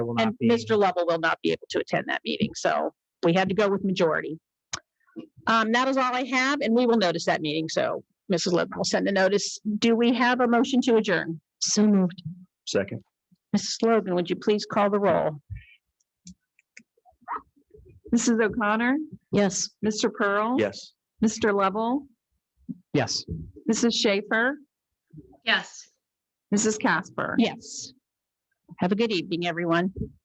will And not be. Mr. Lovell will not be able to attend that meeting, so we had to go with majority. Um, that is all I have, and we will notice that meeting, so Mrs. Lovell will send a notice. Do we have a motion to adjourn? So moved. Second. Mrs. Logan, would you please call the roll? Mrs. O'Connor, Yes. Mr. Pearl. Yes. Mr. Lovell, Yes. Mrs. Schaefer. Yes. Mrs. Casper. Yes. Have a good evening, everyone.